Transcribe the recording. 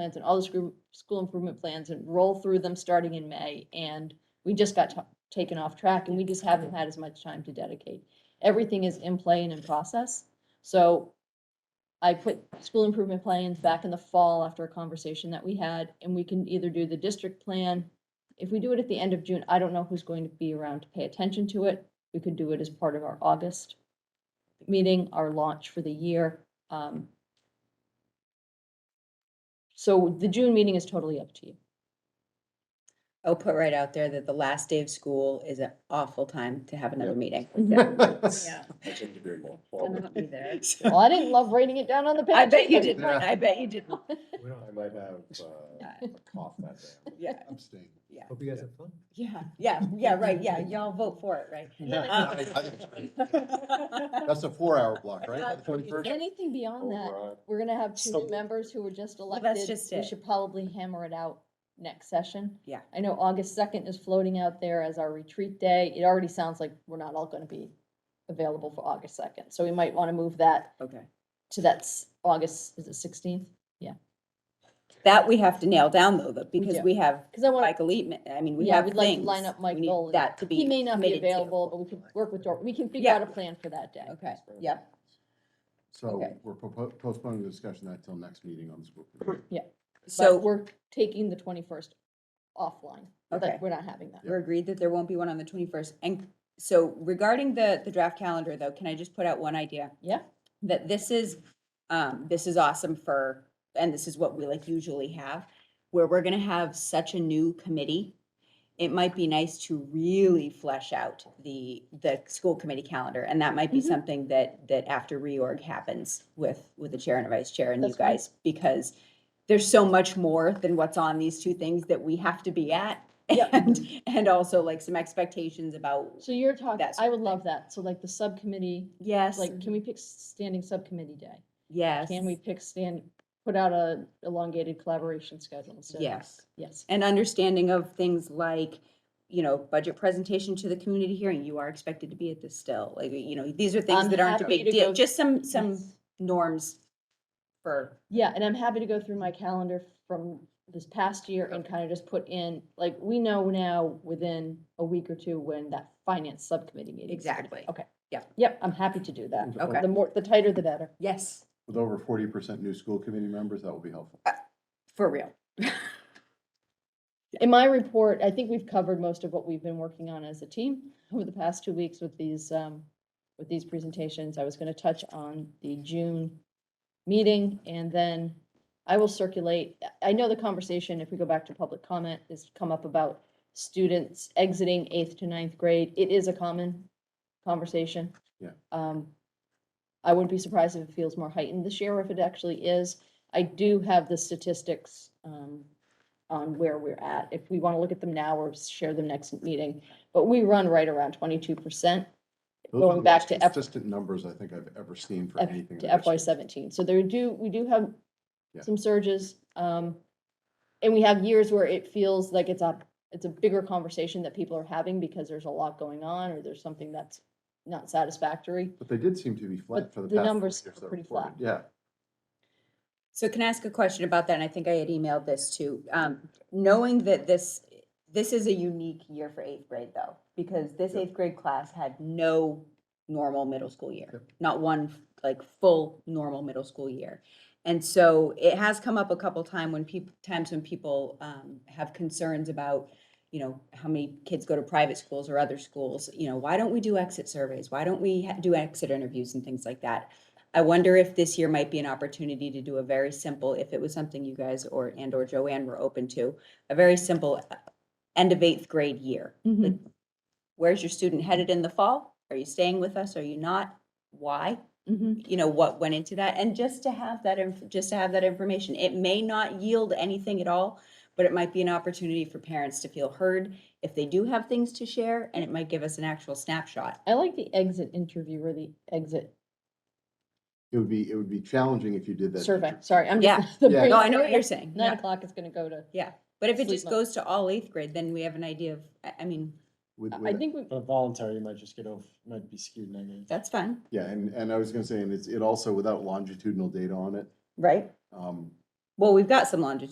plans and all the school, school improvement plans and roll through them starting in May. And we just got ta- taken off track and we just haven't had as much time to dedicate. Everything is in play and in process. So I put school improvement plans back in the fall after a conversation that we had, and we can either do the district plan. If we do it at the end of June, I don't know who's going to be around to pay attention to it. We could do it as part of our August meeting, our launch for the year. Um, So the June meeting is totally up to you. I'll put right out there that the last day of school is an awful time to have another Yeah. meeting. Yeah. That's individual. Not me there. Well, I didn't love writing it down on the page. I bet you but- didn't, I bet you didn't. I might have uh, a cough that day. Yeah, Abstain. Yeah. Hope you guys have fun. yeah, yeah, yeah, right, yeah, y'all vote for it, right? Um, That's a four-hour block, right? Twenty-first? Anything Oh, beyond that, we're gonna have two new So- members who were just that's elected. just We it. should probably hammer it out next session. Yeah. I know August second is floating out there as our retreat day. It already sounds like we're not all gonna be available for August second, so we might wanna move that Okay. to that s- August, is it sixteenth? That we have to nail down though, though, because do. we have Cause I wanna, Michael Eatman, I mean, we yeah, have we'd things. like to line up Mike We need Nolan. That to be. He may not be committed to. available, but we can work with Dor, we can figure Yeah. out a plan for that day. Okay, yep, So Okay. we're propo- postponing the discussion of that till next meeting on the school. committee. So so we're taking the twenty-first offline. Like, Okay. We're not having that. we're agreed that there won't be one on the twenty-first. And so regarding the, the draft calendar though, can I just put out one idea? Yeah, that this is, um, this is awesome for, and this is what we like usually have, where we're gonna have such a new committee. It might be nice to really flesh out the, the school committee calendar, and that might be Mhm. something that, that after reorg happens with, with the chair and a vice chair and you That's fine. guys, because there's so much more than what's on these two things that we have to be at. Yep. And, and also like some expectations about, so you're talking, That sort I of would thing. love that. So like the subcommittee yes, Like, can we pick standing subcommittee day? yes. Can we pick stand, put out a elongated collaboration schedule instead? of- Yes. Yes. and understanding of things like, you know, budget presentation to the community hearing, you are expected to be at this still, like, you know, these are things I'm that aren't a happy big to deal, go- just some, some Yes. norms for, Yeah, and I'm happy to go through my calendar from this past year and kind of just put in, like, we know now within a week or two when that finance subcommittee meeting. is gonna be. Exactly. Okay. Yeah. Yep, I'm happy to do that. With Okay. over- The more, the tighter, the better. yes, With over forty percent new school committee members, that will be helpful. Uh, for real. In my report, I think we've covered most of what we've been working on as a team over the past two weeks with these, um, with these presentations. I was gonna touch on the June meeting and then I will circulate. I know the conversation, if we go back to public comment, has come up about students exiting eighth to ninth grade. It is a common conversation. Yeah. Um, I wouldn't be surprised if it feels more heightened this year, if it actually is. I do have the statistics, um, on where we're at, if we want to look at them now or share them next meeting. But we run right around twenty-two percent Those are Going the back most to F- Consistent numbers I think I've ever seen for F- anything. in to this FY year. seventeen. So there do, we do have Yeah. some surges. Um, and we have years where it feels like it's a, it's a bigger conversation that people are having because there's a lot going on or there's something that's not satisfactory. But they did seem to be But flat for the the past. four numbers years are that pretty reported. Yeah. So can I ask a question about that? And I think I had emailed this too. Um, knowing that this, this is a unique year for eighth grade though, because this eighth grade class had no normal middle school year, Yep. not one like full normal middle school year. And so it has come up a couple time when people, times when people, um, have concerns about, you know, how many kids go to private schools or other schools, you know, why don't we do exit surveys? Why don't we ha- do exit interviews and things like that? I wonder if this year might be an opportunity to do a very simple, if it was something you guys or, and or Joanne were open to, a very simple uh, end of eighth grade year. Like, Where's your student headed in the fall? Are you staying with us? Are you not? Why? Mhm. You know, what went into that? And just to have that, inf- just to have that information, it may not yield anything at all, but it might be an opportunity for parents to feel heard if they do have things to share, and it might give us an actual snapshot. I like the exit interview or the exit It would be, it would be challenging if you did that. survey. Sorry, I'm Yeah. just. the Yeah. brain- No, I know what you're saying. Nine Yeah. o'clock is gonna go to, But if it Sleep just mode. goes to all eighth grade, then we have an idea of, I, I mean, with- I with- think we, But voluntary, you might just get off, might be skewed negative. that's fine. Yeah, and, and I was gonna say, and it's, it also, without longitudinal data on it, Right. um, Well, we've got some longitude.